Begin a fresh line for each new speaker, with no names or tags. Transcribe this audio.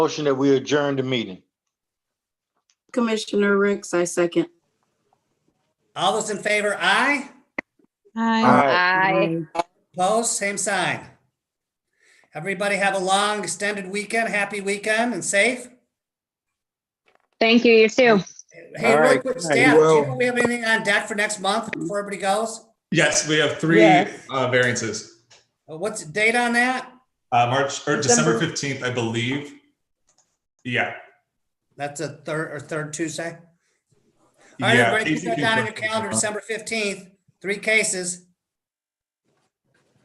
Motion that we adjourn the meeting.
Commissioner Ricks, I second.
All those in favor, aye.
Hi.
Aye.
Opposed, same sign. Everybody have a long extended weekend, happy weekend and safe.
Thank you, you too.
Hey,
All
real
right.
quick,
Hey,
Stan, do you
well-
know we have anything on deck for next month before everybody goes?
Yes, we have three
Yes.
uh, variances.
Uh, What's the date on that?
Uh, March or December
December.
fifteenth, I believe. Yeah,
That's a third or third Tuesday. All right,
yeah.
everybody, put that down in your calendar,
December.
December fifteenth, three cases.